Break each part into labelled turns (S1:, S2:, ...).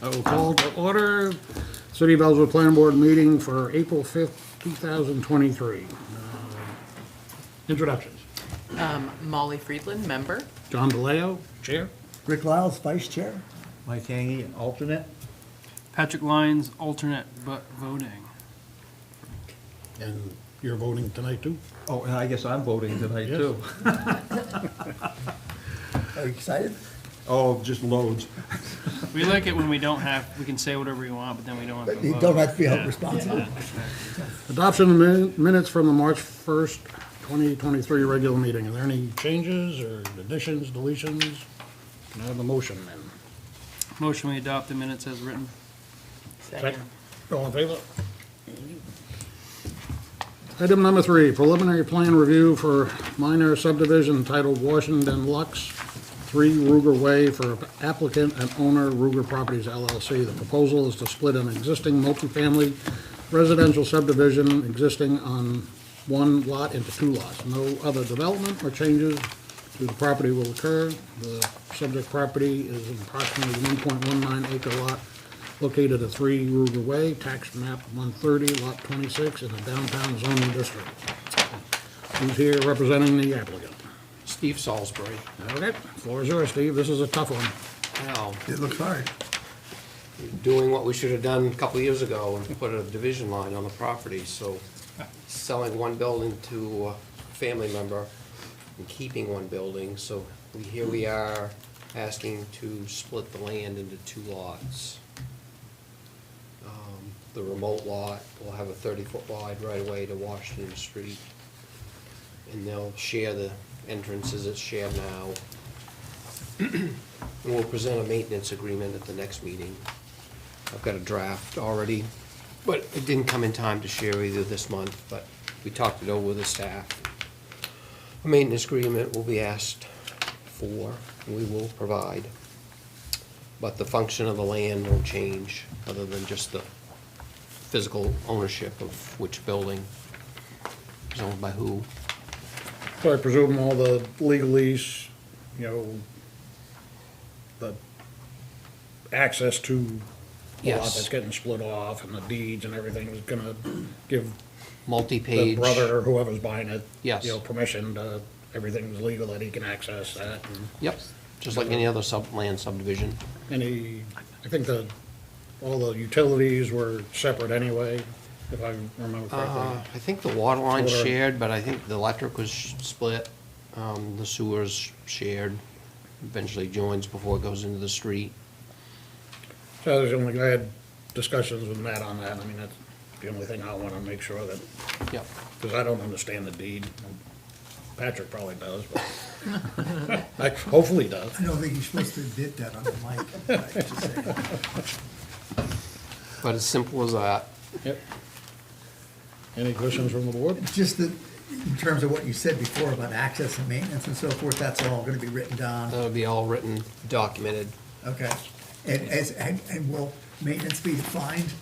S1: I will call to order City of Ellsworth Planning Board meeting for April 5th, 2023. Uh, Introductions.
S2: Um, Molly Friedland, member.
S1: John DeLeo, Chair.
S3: Rick Lyles, Vice Chair.
S4: Mike Hangy, an alternate.
S5: Patrick Lyons, alternate but voting.
S1: And you're voting tonight, too?
S4: Oh, and I guess I'm voting tonight,
S1: Yes.
S4: too.
S3: Are you excited?
S4: Oh, just loads.
S5: We like it when we don't have, we can say whatever we want, but then we don't have to
S3: You
S5: vote.
S3: don't have to be held
S5: Yeah.
S3: responsible.
S1: Adoption of min- minutes from the March 1st, 2023 regular meeting. Are there any changes or additions, deletions? Can I have a motion then?
S5: Motion, we adopt the minutes as written.
S1: Second. All in favor? Item number three, preliminary plan review for minor subdivision titled Washington Lux, 3 Ruger Way for applicant and owner Ruger Properties LLC. The proposal is to split an existing multifamily residential subdivision existing on one lot into two lots. No other development or changes to the property will occur. The subject property is an approximately 1.19 acre lot located at 3 Ruger Way, tax map 130, lot 26, in the downtown zoning district. Who's here representing the applicant?
S6: Steve Salisbury.
S1: Okay, floor is yours, Steve, this is a tough one.
S6: Now,
S3: It looks hard.
S6: doing what we should have done a couple of years ago and put a division line on the property, so selling one building to a family member and keeping one building, so we, here we are asking to split the land into two lots. Um, The remote lot will have a thirty-foot wide right-of-way to Washington Street, and they'll share the entrances that's shared now. And we'll present a maintenance agreement at the next meeting. I've got a draft already, but it didn't come in time to share either this month, but we talked it over with the staff. A maintenance agreement will be asked for, and we will provide. But the function of the land will change, other than just the physical ownership of which building is owned by who.
S1: So I presume all the legalese, you know, the access to the lot
S6: Yes.
S1: that's getting split off and the deeds and everything is gonna give the
S6: Multi-page.
S1: brother or whoever's buying it,
S6: Yes.
S1: you know, permission to, everything's legal that he can access that and
S6: Yep, just like any other sub, land subdivision.
S1: any, I think the, all the utilities were separate anyway, if I remember
S6: Uh,
S1: correctly.
S6: I think the water line's
S1: Water.
S6: shared, but I think the electric was sh- split, um, the sewer's shared, eventually joins before it goes into the street.
S1: So there's only, I had discussions with Matt on that, I mean, that's the only thing I wanna make sure that,
S6: Yep,
S1: because I don't understand the deed. Patrick probably does, but, I- hopefully he does.
S3: I don't think you're supposed to admit that on the mic. I just say.
S6: but as simple as that.
S1: Yep. Any questions from the board?
S3: Just that, in terms of what you said before about access and maintenance and so forth, that's all gonna be written down,
S6: That'll be all written, documented.
S3: okay? And as, and, and will maintenance be defined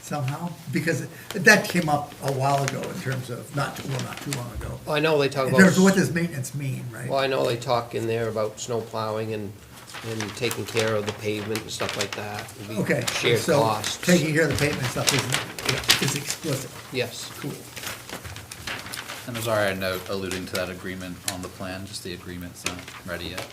S3: somehow? Because that came up a while ago in terms of, not, too- well, not too long ago.
S6: I know they talk
S3: In terms of what
S6: about,
S3: does maintenance mean, right?
S6: well, I know they talk in there about snow plowing and, and taking care of the pavement and stuff like that. It'll be
S3: Okay,
S6: Shared
S3: so
S6: costs.
S3: taking care of the pavement stuff is, is explicit.
S6: Yes,
S3: Cool.
S7: And there's already a note alluding to that agreement on the plan, just the agreement's not ready yet.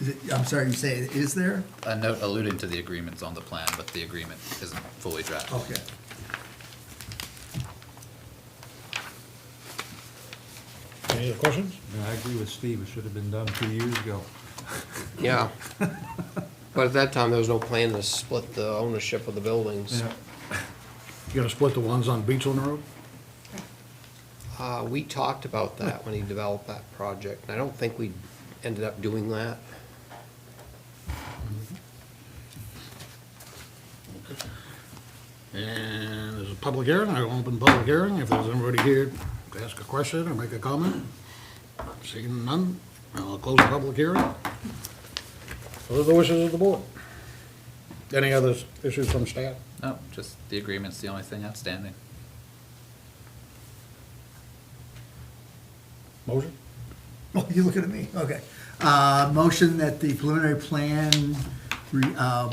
S3: Is it, I'm sorry, you say, it is there?
S7: A note alluding to the agreement's on the plan, but the agreement isn't fully drafted.
S3: Okay.
S1: Any other questions?
S4: I agree with Steve, it should have been done two years ago.
S6: yeah. But at that time, there was no plan to split the ownership of the buildings.
S1: You gonna split the ones on Beechland Road?
S6: Uh, we talked about that when he developed that project, and I don't think we ended up doing that.
S1: And there's a public hearing, I will open public hearing, if there's anybody here to ask a question or make a comment. Seeing none, I'll close the public hearing. What are the wishes of the board? Any other issues from staff?
S7: No, just the agreement's the only thing outstanding.
S1: Motion?
S3: Well, Oh, you looking at me, okay. Uh, motion that the preliminary plan, re- uh,